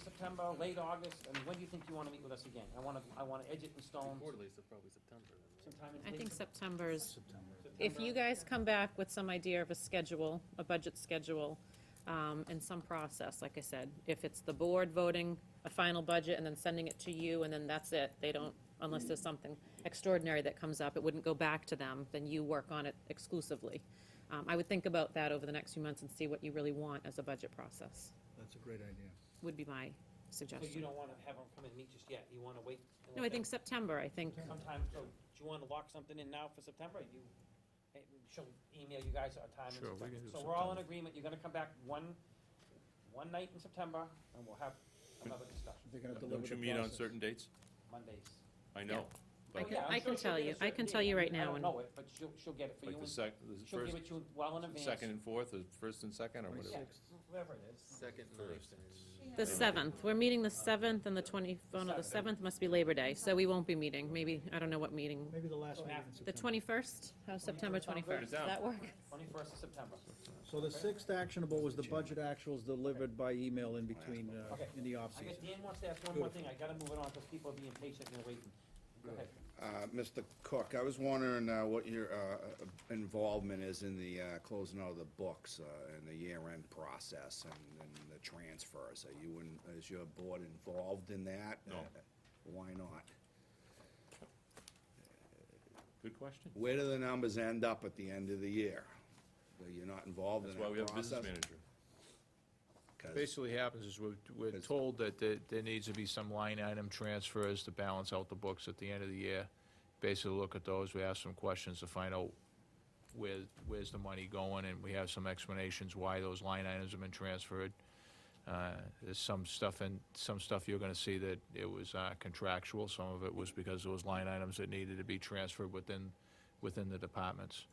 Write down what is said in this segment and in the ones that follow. September, late August, I mean, when do you think you wanna meet with us again? I wanna, I wanna edge it in Um, stone Quarterly, so probably September then. right? sometime in I late think September is, September. if you guys come back with some idea of a schedule, a budget schedule, um, and some process, like I said, if it's the board voting a final budget and then sending it to you, and then that's it, they don't, unless there's something extraordinary that comes up, it wouldn't go back to them, then you work on it exclusively. Um, I would think about that over the next few months and see what you really want as a budget process, That's a great idea. would be my So you suggestion. don't wanna have them come and meet just yet, you wanna wait? and No, I let them- think September, I think, Sometime, so, do you wanna lock something in now for September, or you, eh, she'll email you guys a time in Sure, we September? can do So we're all in agreement, you're gonna come back one, one night in September, and we'll have another discussion, They're gonna deliver Don't you the meet on process. certain dates? Mondays. I I know, Well, can- yeah, I'm sure I she'll can tell get a you. I certain can tell date. you I mean, right now I and- don't know it, but she'll, she'll get it for you, like the and sec, the she'll give first, it to you well in advance. second and fourth, or first and second, or what is Yeah, it? whoever it is. Second, First. ninth, and- the seventh, we're meeting the seventh and the twenty, oh no, the seventh must be Labor Day, so we won't be meeting, maybe, I don't know what meeting. Maybe the last So meeting after- in The September. twenty-first, how's September twenty-first, does that work? Twenty-first of September. So the sixth actionable was the budget actuals delivered by email in between, uh, Okay. in the I guess off-season. Dan wants to ask one more thing, I gotta move it on, because people are being patient and waiting. Go ahead. Uh, Mr. Cook, I was wondering uh, what your uh, involvement is in the uh, closing out of the books uh, and the year-end process and and the transfers. Are you, in- is your board involved in that? Uh, No. Why not? Good question. Where do the numbers end up at the end of the year? Are you not involved in That's that why we have a business process? manager. 'Cause- Basically happens is we're, we're Because- told that there, there needs to be some line item transfers to balance out the books at the end of the year. Basically look at those, we ask some questions to find out where, where's the money going, and we have some explanations why those line items have been transferred. Uh, There's some stuff in, some stuff you're gonna see that it was uh, contractual, some of it was because there was line items that needed to be transferred within, within the departments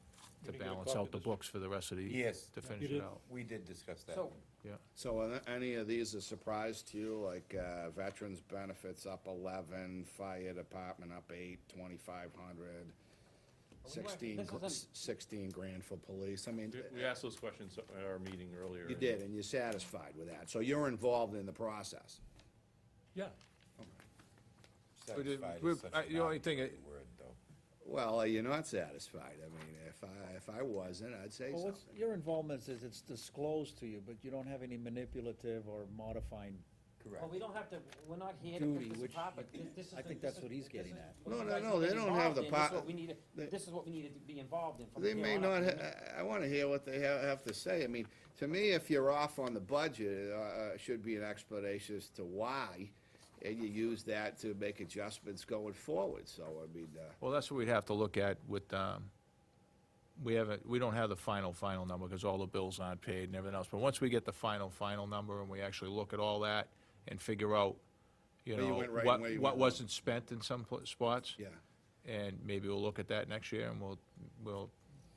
to Can we get a balance copy out of the this? books for the rest of the. Yes. To finish it out, We did discuss that. So, yeah. So are any of these a surprise to you, like uh, veterans benefits up eleven, fire department up eight, twenty-five we hundred, working- sixteen, this gr- isn't- sixteen grand for police, I mean, We- We asked those questions at our meeting earlier. you did, and you're satisfied with that, so you're involved in the process. Yeah. But it- Satisfied we're- is such I- an the only thing outdated I- Word, though. Well, are you not satisfied? I mean, if I, if I wasn't, I'd say Well, what's, something. your involvement is it's disclosed to you, but you don't have any manipulative or modifying. Correct. Well, we don't have to, we're not here to pick Duty, this which apart, but thi- this is. I the- think this that's is- what he's this getting is at. what No, you no, guys no, need to they get don't have the involved in. This is po- what we need to- they- This is what we needed to be involved in from They here may on out. not, ha- I want to hear what they ha- have to say. I mean, to me, if you're off on the budget, uh, uh, it should be an explanation as to why, and you use that to make adjustments going forward, so, I mean, uh, Well, that's what we'd have to look at with, um, we haven't, we don't have the final, final number because all the bills aren't paid and everything else. But once we get the final, final number and we actually look at all that and figure out, you Where you know, went right and what, where you went what wrong. wasn't spent in some pl- spots. yeah, And maybe we'll look at that next year and we'll, we'll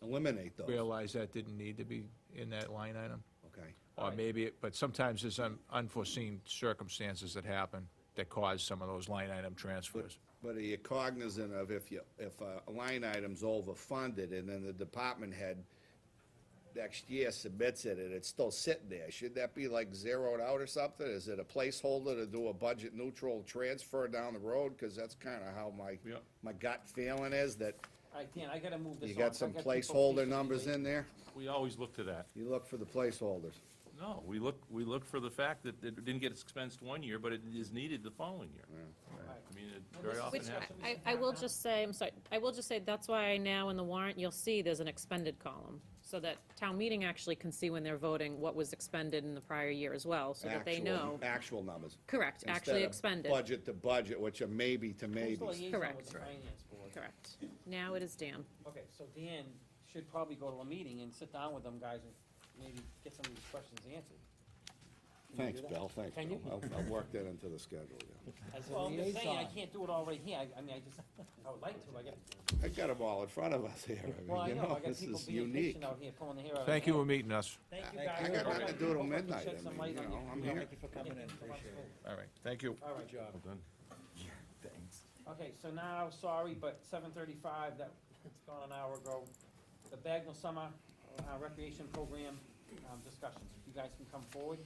eliminate those, realize that didn't need to be in that line item. okay? Or maybe, it- but sometimes there's un- unforeseen circumstances that happen that cause some of those line item transfers. But are you cognizant of if you, if uh, a line item's overfunded and then the department head next year submits it and it's still sitting there, should that be like zeroed out or something? Is it a placeholder to do a budget neutral transfer down the road? Cause that's kinda how my, Yeah. my gut feeling is that All right, Dan, I gotta move this on. you got some placeholder numbers in there? We always look to that. You look for the placeholders. No, we look, we look for the fact that it didn't get expensed one year, but it is needed the following Mm. year. I mean, it very this- often Which- happens. happen. I, I will just say, I'm sorry, I will just say, that's why now in the warrant, you'll see there's an expended column, so that town meeting actually can see when they're voting what was expended in the prior year as well, so that they Actual- know. Actual numbers. Correct, instead actually of expended, Budget to budget, which are maybe to Who's maybe. the liaison with Correct. the finance board? correct. Now it is Dan. Okay, so Dan should probably go to a meeting and sit down with them guys and maybe get some of these questions answered. Thanks, do that? Bill, thanks, Can Bill. you? I'll, I'll work that into the schedule, yeah. As well, I'm just saying, I liaison. can't do it all right here, I, I mean, I just, I would like to, I got, I got them all in front of us here. I mean, well, I you know, I got this people is being unique. patient out here, pulling the hair out of their Thank you for head. meeting us. Thank you I- guys. I got Hope nothing to I- do till hope I can midnight, shed I some mean, light you on know, I'm here. Thank you for coming in, Thank you so much. appreciate it. All right, thank you. All right, job. Well done. Thanks. Okay, so now, sorry, but seven thirty-five, that, it's gone an hour ago. The Bagnell Summer uh, Recreation Program um, discussions, you guys can come forward.